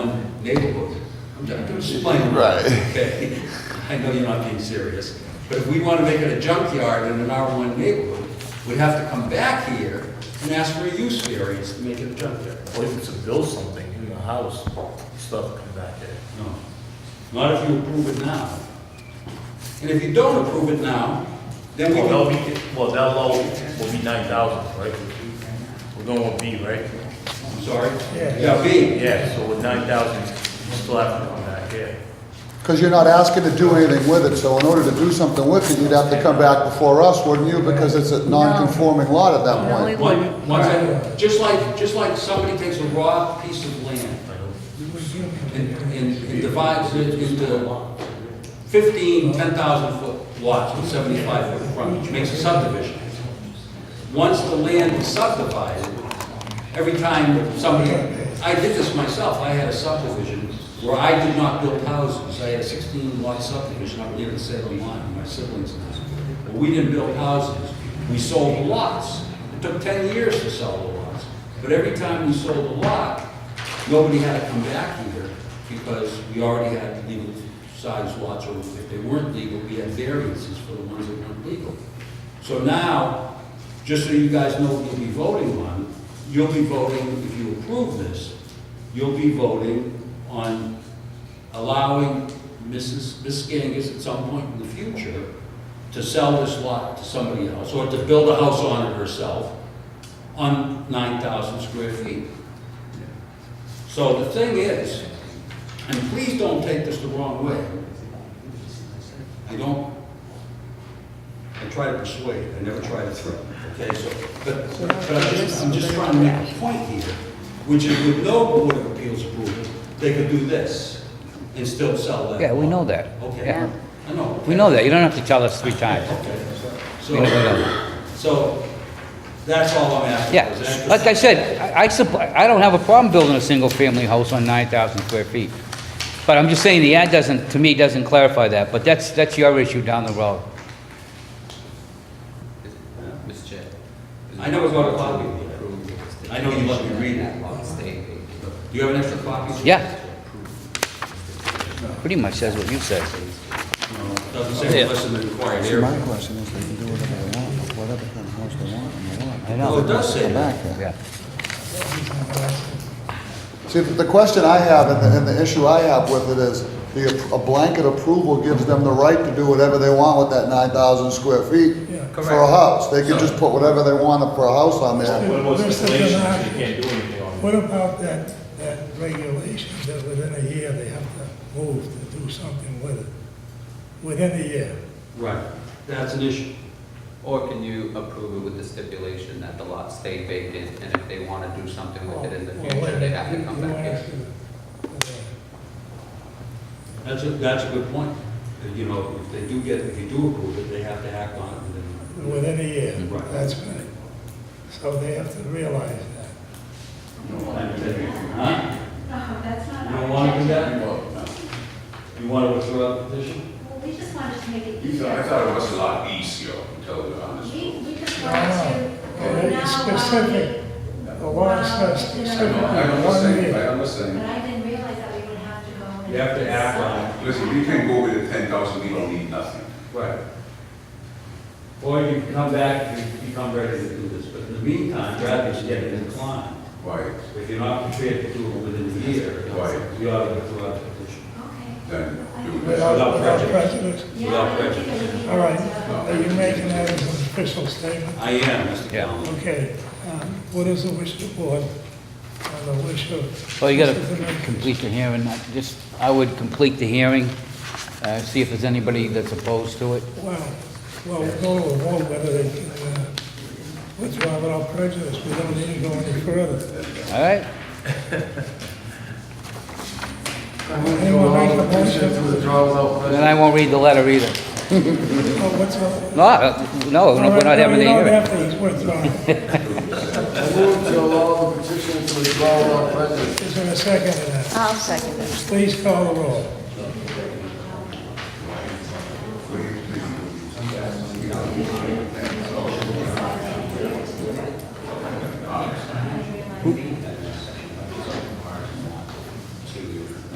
neighborhood. I'm ju- I'm just playing. Right. Okay, I know you're not being serious, but if we want to make it a junkyard in an R1 neighborhood, we'd have to come back here and ask for a use variance to make it a junkyard. What if it's to build something in the house, stuff come back in? No, not if you approve it now. And if you don't approve it now, then Oh, we Well, that'll can, be, well, that low will be nine thousand, right? We're going with B, right? I'm sorry. Yeah, B, Yeah, so with nine thousand, you still have to come back in. Because you're not asking to do anything with it, so in order to do something with it, you'd have to come back before us, wouldn't you? Because it's a non-conforming lot at that No, we point. one- wouldn't. once I, just like, just like somebody takes a raw piece of land and, and and divides it into 15, 10,000 foot lots with 75 foot frontage, makes a subdivision. Once the land is subdivided, every time somebody, I did this myself, I had a subdivision where I did not build houses, I had a 16 lot subdivision up near the Salem line, my siblings and I. But we didn't build houses, we sold lots. It took 10 years to sell the lots, but every time we sold a lot, nobody had to come back here because we already had legal size lots, or if they weren't legal, we had variances for the ones that weren't legal. So now, just so you guys know what you'll be voting on, you'll be voting, if you approve this, you'll be voting on allowing Mrs., Ms. Gangus at some point in the future to sell this lot to somebody else, or to build a house on it herself, on 9,000 square feet. So the thing is, and please don't take this the wrong way. I don't, I try to persuade, I never try to threaten, okay, so, but, but I'm just, I'm just trying to make a point here, which is with no Board of Appeals approval, they could do this and still sell that. Yeah, we lot. know that. Okay, Yeah. I know. okay. We know that, you don't have to tell us three times. Okay, We so, know that. so, that's all I'm asking. Yeah, is that- like I said, I, I supp- I don't have a problem building a single-family house on 9,000 square feet. But I'm just saying, the ad doesn't, to me, doesn't clarify that, but that's, that's your issue down the road. Mr. Chair. I never got a copy of it. I know you let me read it. Do you have an extra copy? Yeah. Pretty much says what you said. No, it Doesn't say Yeah. unless in the required See, my area. question is, they can do whatever they want, with whatever kind of house they want on the lot. I No, it know, does say Come that. back here. yeah. See, the the question I have, and the, and the issue I have with it is, the, a blanket approval gives them the right to do whatever they want with that nine thousand square feet for a correct. house. They can just put whatever they want for a house on there. What about Mr. stipulations, Bernard. you can't do anything on What about that, that regulation that within a year they have to move to do something with it? Within a year. Right, that's an issue. Or can you approve it with the stipulation that the lot stay vacant, and if they want to do something with it in the Well, future, they have to you- come you back won't here? have to, uh, That's a, that's a good point. That, You know, if they do get, if you do approve it, they have to act on it within. Within a year, Right. that's right. So they have to realize that. Huh? You don't want to do that? No. You want to withdraw the petition? Well, we just wanted to make it You easier. thought, I thought it was a lot easier until the honest. We, we just No, wanted no. to. It's now specific. why The law says Wow, you know. I specifically know, I'm one listening, year. I'm we- But listening. I didn't realize that we would have to go. and- You have to act on Listen, we can go with the ten thousand, we don't need nothing. Right. Or you can come back, you become ready to do this, but in the meantime, rather than getting inclined, Why, if you're not prepared to do it within a year, Right. you ought to withdraw the petition. Okay. then do Without this? Without without prejudice. prejudice. Yeah, I don't think it would be. All right, are you making that as an official statement? I am, Mr. Yeah. Callen. Okay, um, what is the wish of the board? And the wish of... Well, you gotta Mr. Zemeckis? complete the hearing, I just, I would complete the hearing, uh, see if there's anybody that's opposed to it. Well, well, we'll go to a vote whether they can uh, withdraw without prejudice. We don't need to go any further. All right? Anyone make a motion? Then I won't read the letter either. Oh, what's up? No, uh, no, we're not having the All right, no, we don't have hearing. to, it's withdrawn. Is there a second to that? I'll second it. Please call the roll.